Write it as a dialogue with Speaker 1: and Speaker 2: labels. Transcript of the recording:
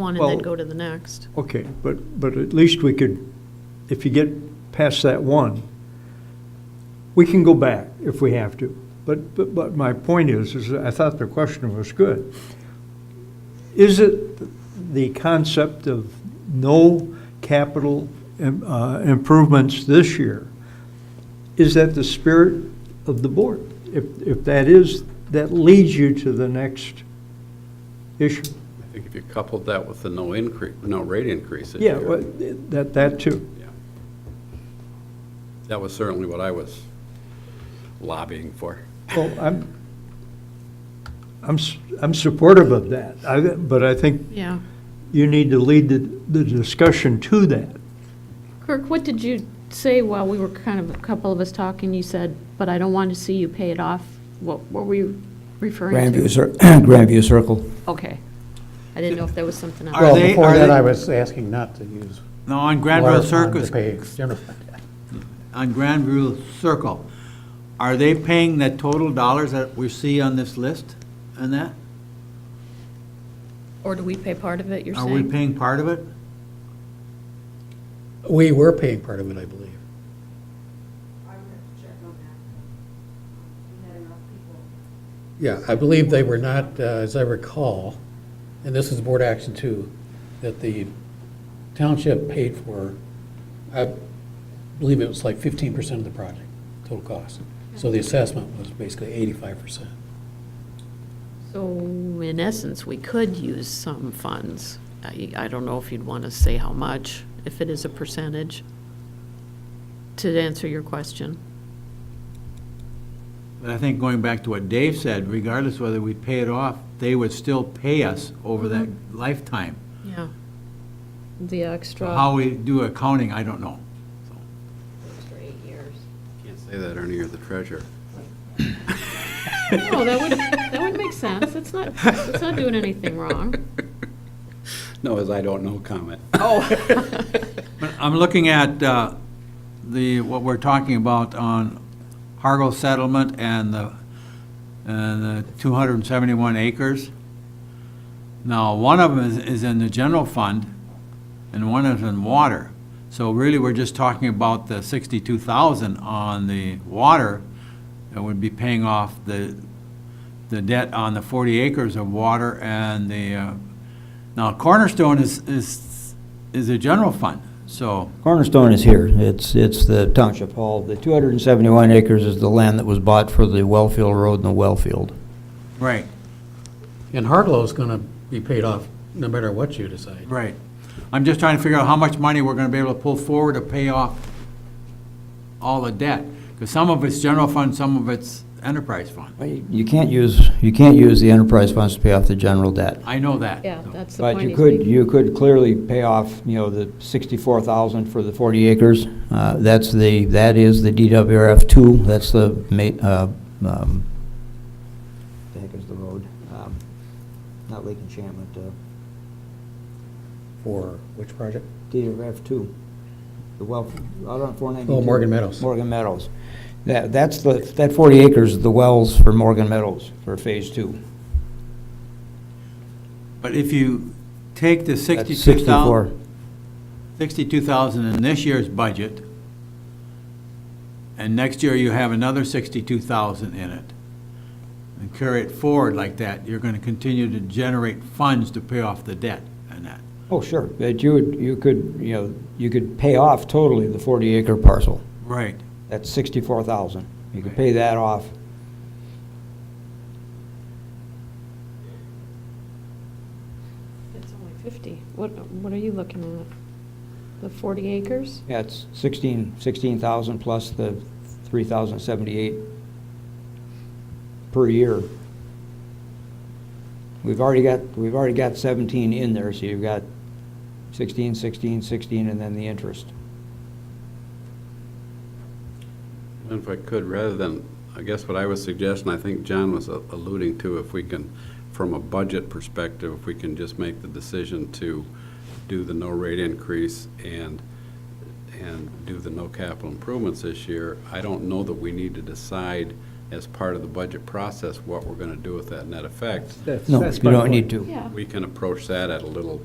Speaker 1: one and then
Speaker 2: Well-
Speaker 1: go to the next.
Speaker 2: Okay, but, but at least we could, if you get past that one, we can go back if we have to. But, but, but my point is, is I thought the question was good. Is it the concept of no capital im- uh, improvements this year? Is that the spirit of the board? If, if that is, that leads you to the next issue.
Speaker 3: I think if you coupled that with the no increase, no rate increase. that
Speaker 2: Yeah,
Speaker 3: you-
Speaker 2: well, that, that too.
Speaker 3: yeah. That was certainly what I was lobbying for.
Speaker 2: Well, I'm, I'm, s- I'm supportive of that, I, but I think
Speaker 1: Yeah.
Speaker 2: you need to lead the, the discussion to that.
Speaker 4: Kirk, what did you say while we were kind of, a couple of us talking, you said, but I don't want to see you pay it off? What what were you referring to?
Speaker 5: Grandview, Cir- Grandview Circle.
Speaker 4: Okay. I didn't know if there was something else.
Speaker 6: Are
Speaker 7: Well,
Speaker 6: they-
Speaker 7: before
Speaker 6: are
Speaker 7: that,
Speaker 6: they-
Speaker 7: I was asking not to use
Speaker 6: No, on
Speaker 7: water
Speaker 6: Granville
Speaker 7: fund to
Speaker 6: Circus,
Speaker 7: pay general fund.
Speaker 6: on Granville Circle, are they paying the total dollars that we see on this list and that?
Speaker 1: Or do we pay part of it, you're
Speaker 6: Are we
Speaker 1: saying?
Speaker 6: paying part of it?
Speaker 7: We were paying part of it, I believe.
Speaker 8: I would have to check on that. We had enough people
Speaker 7: Yeah, I believe they were not, uh, as I recall, and this is board action two, that the township paid for, I believe it was like fifteen percent of the project, total cost. So the assessment was basically eighty-five percent.
Speaker 1: So in essence, we could use some funds. I, I don't know if you'd want to say how much, if it is a percentage, to answer your question.
Speaker 6: But I think going back to what Dave said, regardless whether we pay it off, they would still pay us over that
Speaker 1: Mm-hmm.
Speaker 6: lifetime.
Speaker 1: Yeah. The extra.
Speaker 6: How we do accounting, I don't know.
Speaker 1: For eight years.
Speaker 3: Can't say that, Ernie, you're the treasurer.
Speaker 4: No, that would, that would make sense. It's not, it's not doing anything wrong.
Speaker 3: No, as I don't know comment.
Speaker 6: But I'm looking at uh, the, what we're talking about on Hargo settlement and the, and the 271 acres. Now, one of them is- is in the general fund, and one is in water. So really, we're just talking about the 62,000 on the water that would be paying off the, the debt on the 40 acres of water and the, uh, now Cornerstone is, is, is a general fund, so,
Speaker 5: Cornerstone is here. It's, it's the township hall. The 271 acres is the land that was bought for the Wellfield Road and the Wellfield.
Speaker 6: right,
Speaker 7: And Hartlow's gonna be paid off no matter what you decide.
Speaker 6: right. I'm just trying to figure out how much money we're gonna be able to pull forward to pay off all the debt, because some of it's general fund, some of it's enterprise fund.
Speaker 5: Well, You you can't use, you can't use the enterprise funds to pay off the general debt.
Speaker 6: I know that.
Speaker 4: Yeah, that's the point.
Speaker 5: But you
Speaker 4: he's
Speaker 5: could,
Speaker 4: making.
Speaker 5: you could clearly pay off, you know, the 64,000 for the 40 acres. Uh, That's the, that is the DWRF 2, that's the ma, uh, um, the heck is the road? Um, Not Lake Enchantment, uh,
Speaker 7: For which project?
Speaker 5: DWRF 2, the well, out on 492.
Speaker 7: Oh, Morgan Meadows.
Speaker 5: Morgan Meadows. That, that's the, that 40 acres is the wells for Morgan Meadows for Phase 2.
Speaker 6: But if you take the
Speaker 5: That's
Speaker 6: 62,000.
Speaker 5: 64.
Speaker 6: 62,000 in this year's budget, and next year you have another 62,000 in it, and carry it forward like that, you're going to continue to generate funds to pay off the debt and that.
Speaker 5: Oh, sure, that you would, you could, you know, you could pay off totally the 40 acre parcel.
Speaker 6: Right.
Speaker 5: That's sixty-four thousand. You can
Speaker 6: Right.
Speaker 5: pay that off.
Speaker 4: It's only 50. What, what are you looking at? The 40 acres?
Speaker 5: Yeah, it's sixteen, sixteen thousand plus the three thousand seventy-eight per year. We've already got, we've already got seventeen in there, so you've got sixteen, sixteen, sixteen, and then the interest.
Speaker 3: And If I could, rather than, I guess what I was suggesting, I think John was a- alluding to, if we can, from a budget perspective, if we can just make the decision to do the no rate increase and, and do the no capital improvements this year, I don't know that we need to decide as part of the budget process what we're going to do with that net effect.
Speaker 2: That's-
Speaker 5: No, you
Speaker 2: that's my
Speaker 5: don't
Speaker 2: point.
Speaker 5: need to.
Speaker 4: Yeah.
Speaker 3: We can approach that at a little